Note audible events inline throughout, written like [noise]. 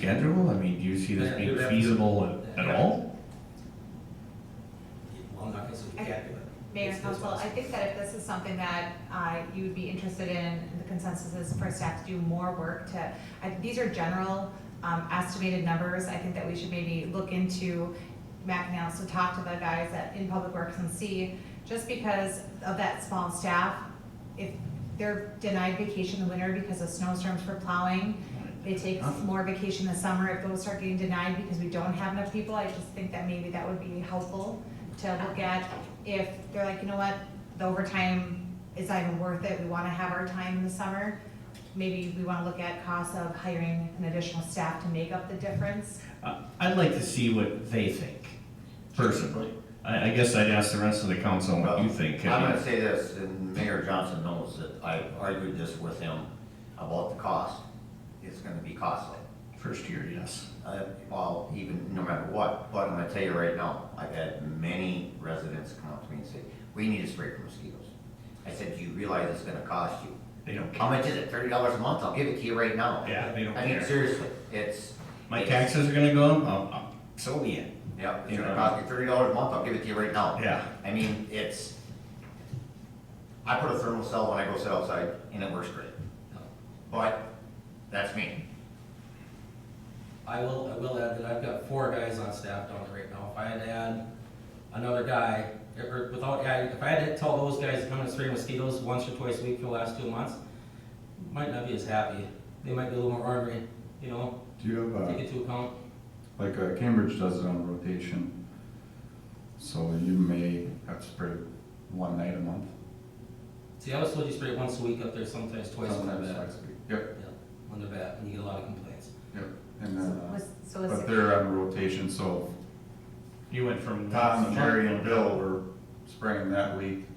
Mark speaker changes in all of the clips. Speaker 1: schedule? I mean, do you see this
Speaker 2: Yeah,
Speaker 1: being
Speaker 2: do that.
Speaker 1: feasible at, at all?
Speaker 2: Well, I'm not gonna say we can't do it.
Speaker 3: Mayor
Speaker 2: It's-
Speaker 3: and
Speaker 2: it's
Speaker 3: council, I
Speaker 2: possible.
Speaker 3: think that if this is something that uh, you would be interested in, and the consensus is for staff to do more work to, I- these are general um, estimated numbers. I think that we should maybe look into mapping out, so talk to the guys at, in Public Works and see, just because of that small staff, if they're denied vacation in the winter because of snowstorms for plowing, they take more vacation this summer, if those start getting denied because we don't have enough people, I just think that maybe that would be helpful to look at. If they're like, you know what, the overtime is not even worth it, we wanna have our time this summer, maybe we wanna look at costs of hiring an additional staff to make up the difference.
Speaker 1: I- I'd like to see what they think, personally. I, I guess I'd ask the rest of the council what you think.
Speaker 4: I'm
Speaker 1: I
Speaker 4: gonna
Speaker 1: mean,
Speaker 4: say this, and Mayor Johnson knows that I argued this with him about the cost. It's gonna be costly.
Speaker 1: First year, yes.
Speaker 4: Uh, well, even no matter what, but I'm gonna tell you right now, I've had many residents come up to me and say, we need a spray for mosquitoes. I said, do you realize it's gonna cost you?
Speaker 1: They don't
Speaker 4: How
Speaker 1: care.
Speaker 4: much is it? Thirty dollars a month? I'll give it to you right now.
Speaker 1: Oh, Yeah, they don't
Speaker 4: I mean,
Speaker 1: care.
Speaker 4: seriously, it's.
Speaker 1: My
Speaker 4: it's-
Speaker 1: taxes are gonna go up, Oh, I'll- I'll- so be it.
Speaker 4: Yep, it's
Speaker 1: You
Speaker 4: gonna
Speaker 1: know.
Speaker 4: cost me thirty dollars a month, I'll give it to you right now.
Speaker 1: Yeah.
Speaker 4: I mean, it's, I put a thermal cell when I go sit outside and it works great. But, that's me.
Speaker 2: I will, I will add that I've got four guys on staff down there right now. If I had to add another guy, or without, yeah, if I had to tell those guys to come and spray mosquitoes once or twice a week for the last two months, might not be as happy. They might be a little more ornery, you know,
Speaker 5: Do you have,
Speaker 2: take
Speaker 5: uh,
Speaker 2: into account.
Speaker 5: like, uh, Cambridge does it on rotation, so you may have to spray one night a month.
Speaker 2: See, I was told you spray once a week up there, sometimes twice when
Speaker 5: sometimes
Speaker 2: they're bad.
Speaker 5: twice a week. Yep,
Speaker 2: Yeah, When they're bad, when you get a lot of complaints.
Speaker 5: yep, and
Speaker 3: So
Speaker 5: then, uh,
Speaker 3: was- So
Speaker 5: but
Speaker 3: is,
Speaker 5: they're on rotation, so
Speaker 1: You went from.
Speaker 5: if Tom, Jerry, and Bill were spraying that week,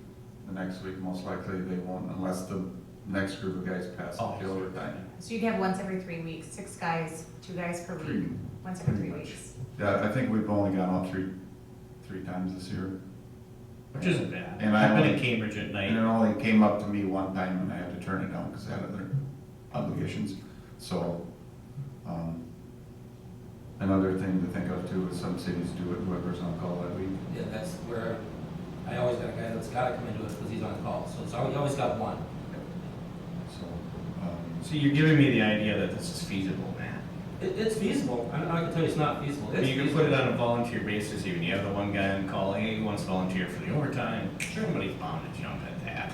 Speaker 5: the next week, most likely they won't, unless the next group of guys pass the
Speaker 1: Oh,
Speaker 5: field or time.
Speaker 3: so you'd have once every three weeks, six guys, two guys per
Speaker 5: Three,
Speaker 3: week, once every
Speaker 5: pretty
Speaker 3: three
Speaker 5: much.
Speaker 3: weeks.
Speaker 5: yeah, I think we've only gone out three, three times this year,
Speaker 1: Which isn't bad.
Speaker 5: And I
Speaker 1: I've been in
Speaker 5: don't-
Speaker 1: Cambridge at
Speaker 5: and it
Speaker 1: night.
Speaker 5: only came up to me one time and I had to turn it down because I had other obligations, so, um, another thing to think of too is some cities do it, whoever's on call that week.
Speaker 2: Yeah, that's where, I always got a guy that's gotta come into it because he's on call, so it's, al- you always got one.
Speaker 5: So, um,
Speaker 1: So you're giving me the idea that this is feasible, man.
Speaker 2: It, it's feasible, I don't, I can tell you it's not feasible,
Speaker 1: I mean,
Speaker 2: it's
Speaker 1: you can put it
Speaker 2: feasible.
Speaker 1: on a volunteer basis even. You have the one guy on call, hey, he wants to volunteer for the overtime. Somebody's bound to jump at that.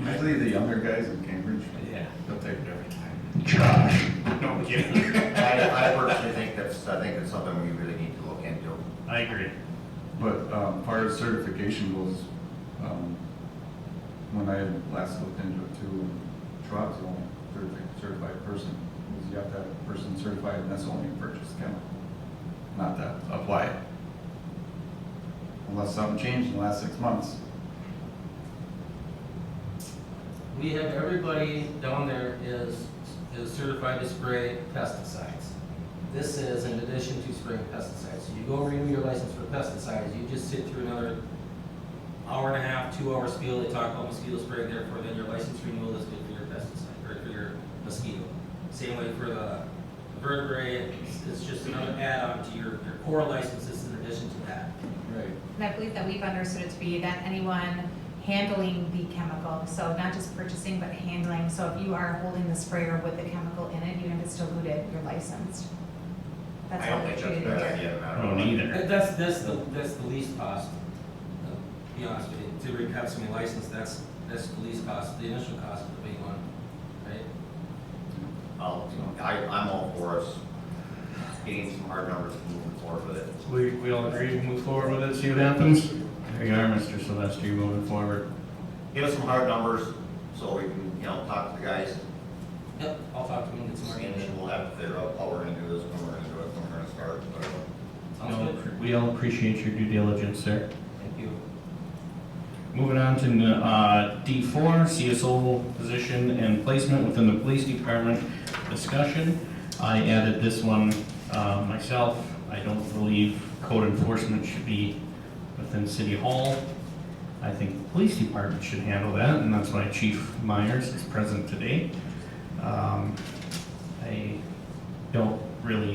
Speaker 5: usually the younger guys in Cambridge,
Speaker 1: Yeah.
Speaker 5: they'll take it every time.
Speaker 1: Josh. No kidding. [laughs]
Speaker 4: I, I personally think that's, I think it's something we really need to look into.
Speaker 1: I agree.
Speaker 5: But um, far as certification goes, um, when I had last looked into it too, Schwab's the only certi- certified person. Because you have to have a person certified and that's only a purchase chemical, not that apply it. Unless something changed in the last six months.
Speaker 2: We have everybody down there is, is certified to spray pesticides. This is in addition to spraying pesticides, so you go renew your license for pesticides, you just sit through another hour and a half, two hour spiel, they talk about mosquito spray, therefore then your license renewal is good for your pesticide, or for your mosquito. Same way for the vertebrae, it's, it's just another add-on to your, your core license, it's in addition to that.
Speaker 5: Right.
Speaker 3: And I believe that we've understood it to be that anyone handling the chemical, so not just purchasing, but handling. So if you are holding the sprayer with the chemical in it, even if it's diluted, you're licensed. That's
Speaker 4: I
Speaker 3: how
Speaker 4: don't
Speaker 3: they're
Speaker 4: think that's a
Speaker 3: treated
Speaker 4: bad
Speaker 3: here.
Speaker 4: idea, no
Speaker 1: I
Speaker 4: matter
Speaker 1: don't
Speaker 4: what.
Speaker 1: either.
Speaker 2: That- That's, that's the, that's the least cost, uh, to be honest with you, to re- have somebody licensed, that's, that's the least cost, the initial cost of the big one, right?
Speaker 4: I'll, I, I'm all for us getting some hard numbers and moving forward with it.
Speaker 1: We, we all agree, move forward with it, see what happens? There you are, Mr. Sylvester, moving forward.
Speaker 4: Give us some hard numbers so we can, you know, talk to the guys
Speaker 2: Yep, I'll talk to him and get some more
Speaker 4: and then
Speaker 2: information.
Speaker 4: we'll have to figure out how we're gonna do this, when we're gonna do it, when we're gonna start, but.
Speaker 1: We
Speaker 2: Sounds
Speaker 1: all-
Speaker 2: good?
Speaker 1: We all appreciate your due diligence, sir.
Speaker 2: Thank you.
Speaker 1: Moving on to, uh, D four, CSO position and placement within the police department discussion. I added this one, uh, myself. I don't believe code enforcement should be within city hall. I think the police department should handle that, and that's why Chief Myers is present today. Um, I don't really